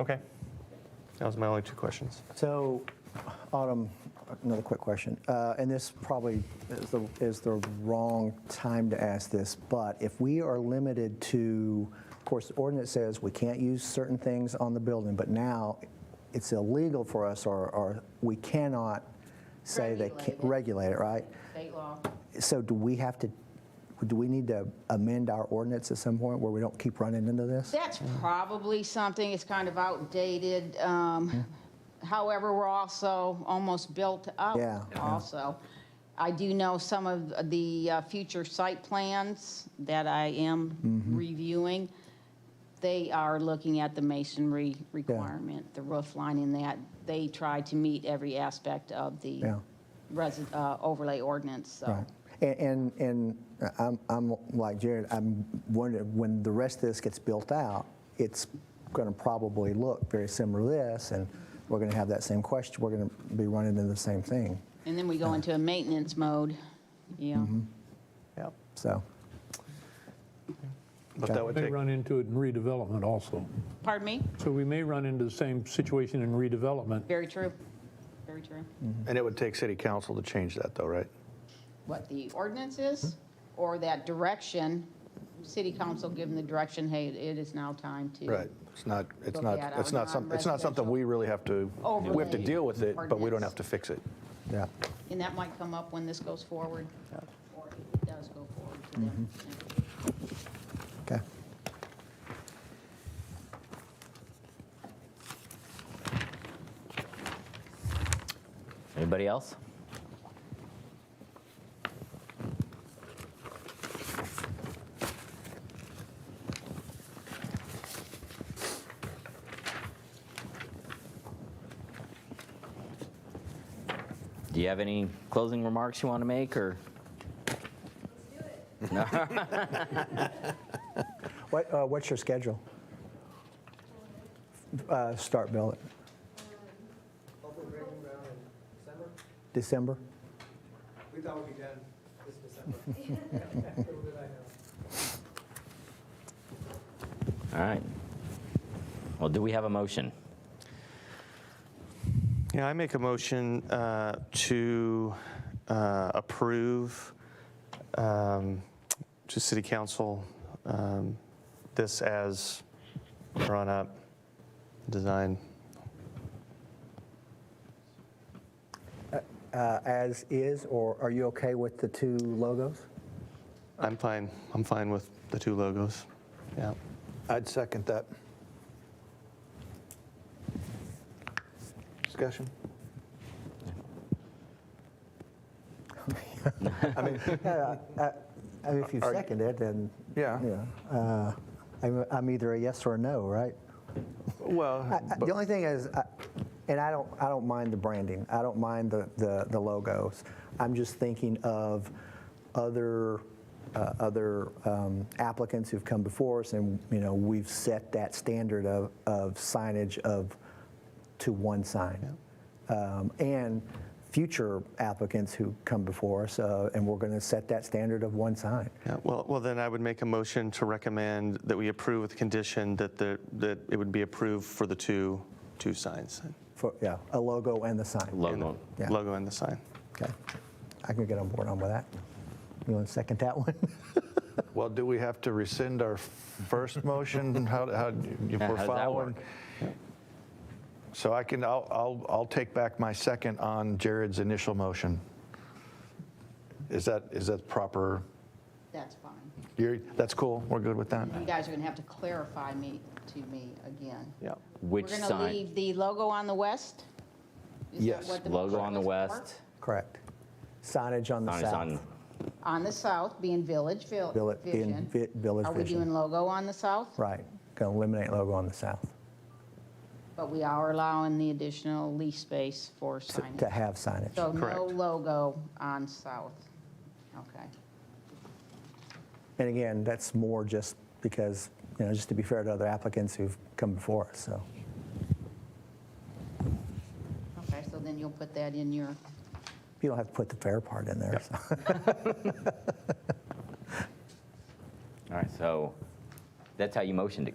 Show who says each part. Speaker 1: Okay. That was my only two questions.
Speaker 2: So, Autumn, another quick question. Uh, And this probably is the, is the wrong time to ask this, but if we are limited to, of course, the ordinance says we can't use certain things on the building, but now it's illegal for us or, or we cannot say they can't regulate it, right?
Speaker 3: State law.
Speaker 2: So do we have to, do we need to amend our ordinance at some point where we don't keep running into this?
Speaker 3: That's probably something, it's kind of outdated. um, However, we're also almost built up
Speaker 2: Yeah, yeah.
Speaker 3: also. I do know some of the uh, future site plans that I am
Speaker 2: Mm-hmm.
Speaker 3: reviewing. They are looking at the masonry requirement, the roof line in that. They try to meet every aspect of the
Speaker 2: Yeah.
Speaker 3: resi- uh, overlay ordinance, so.
Speaker 2: Right. And, and, and I'm, I'm like Jared, I'm wondering, when the rest of this gets built out, it's going to probably look very similar to this, and we're going to have that same question, we're going to be running into the same thing,
Speaker 3: And then we go into a maintenance mode, yeah.
Speaker 2: Mm-hmm.
Speaker 1: Yep.
Speaker 2: so.
Speaker 1: But that
Speaker 2: Okay.
Speaker 1: would
Speaker 4: May
Speaker 1: take,
Speaker 4: run into it in redevelopment also.
Speaker 3: Pardon me?
Speaker 4: So we may run into the same situation in redevelopment.
Speaker 3: Very true. Very true.
Speaker 1: and it would take city council to change that though, right?
Speaker 3: What the ordinance is, or that direction, city council given the direction, hey, it is now time to.
Speaker 1: Right. It's not, it's
Speaker 3: Look
Speaker 1: not,
Speaker 3: at
Speaker 1: it's
Speaker 3: our
Speaker 1: not something, it's not something we really have to, we have to
Speaker 3: Overlay
Speaker 1: deal with it, but we don't
Speaker 3: ordinance.
Speaker 1: have to fix it.
Speaker 2: Yeah.
Speaker 3: And that might come up when this goes forward, or if it does go forward to them.
Speaker 2: Okay.
Speaker 5: Anybody else? Do you have any closing remarks you want to make, or?
Speaker 2: What, uh, what's your schedule? Uh, Start build.
Speaker 6: Hopefully breaking ground in December.
Speaker 2: December?
Speaker 6: We thought we'd be done this December. Little did I know.
Speaker 5: All right. Well, do we have a motion?
Speaker 1: Yeah, I make a motion uh, to uh, approve um, to city council um, this as drawn up, design.
Speaker 2: Uh, As is, or are you okay with the two logos?
Speaker 1: I'm fine, I'm fine with the two logos. Yeah.
Speaker 7: I'd second that. Discussion?
Speaker 2: Yeah, I- I- I mean, If you
Speaker 7: Are-
Speaker 2: second it, then.
Speaker 7: Yeah.
Speaker 2: Yeah. Uh, I'm I'm either a yes or a no, right? I-
Speaker 7: Well,
Speaker 2: I- The only thing is, I- and I don't, I don't mind the branding, I don't mind the, the the logos. I'm just thinking of other, uh, other um, applicants who've come before us, and, you know, we've set that standard of, of signage of, to one sign. Um, And future applicants who come before us, uh, and we're going to set that standard of one sign.
Speaker 1: Yeah, well, well, then I would make a motion to recommend that we approve with condition that the, that it would be approved for the two, two signs.
Speaker 2: For, yeah, a logo and the sign.
Speaker 5: Logo.
Speaker 2: Yeah.
Speaker 1: Logo and the sign.
Speaker 2: Okay. I can get on board on with that. You want to second that one?
Speaker 7: well, do we have to rescind our first motion? How, how, if
Speaker 5: Yeah, how
Speaker 7: we're
Speaker 5: does that
Speaker 7: following?
Speaker 5: work?
Speaker 7: So I can, I'll, I'll, I'll take back my second on Jared's initial motion. Is that, is that proper?
Speaker 3: That's fine.
Speaker 7: You're, that's cool, we're good with that?
Speaker 3: You guys are going to have to clarify me, to me again.
Speaker 1: Yeah.
Speaker 5: Which
Speaker 3: We're going to
Speaker 5: sign?
Speaker 3: leave the logo on the west? Is that
Speaker 7: Yes,
Speaker 3: what
Speaker 5: Logo
Speaker 3: motion
Speaker 5: on the
Speaker 3: was for?
Speaker 5: west.
Speaker 2: Correct. Signage on the
Speaker 5: Sign is
Speaker 2: south.
Speaker 5: on.
Speaker 3: On the south, being Village Vil-
Speaker 2: Vill- being
Speaker 3: Vision.
Speaker 2: Vi- Village
Speaker 3: Are we
Speaker 2: Vision.
Speaker 3: doing logo on the south?
Speaker 2: Right, going to eliminate logo on the south,
Speaker 3: But we are allowing the additional lease space for
Speaker 2: to- to
Speaker 3: signage.
Speaker 2: have signage.
Speaker 3: So no
Speaker 1: Correct.
Speaker 3: logo on South. Okay.
Speaker 2: And again, that's more just because, you know, just to be fair to other applicants who've come before us, so.
Speaker 3: Okay, so then you'll put that in your,
Speaker 2: You don't have to put the fair part in there. so.
Speaker 5: All right, so that's how you motioned it,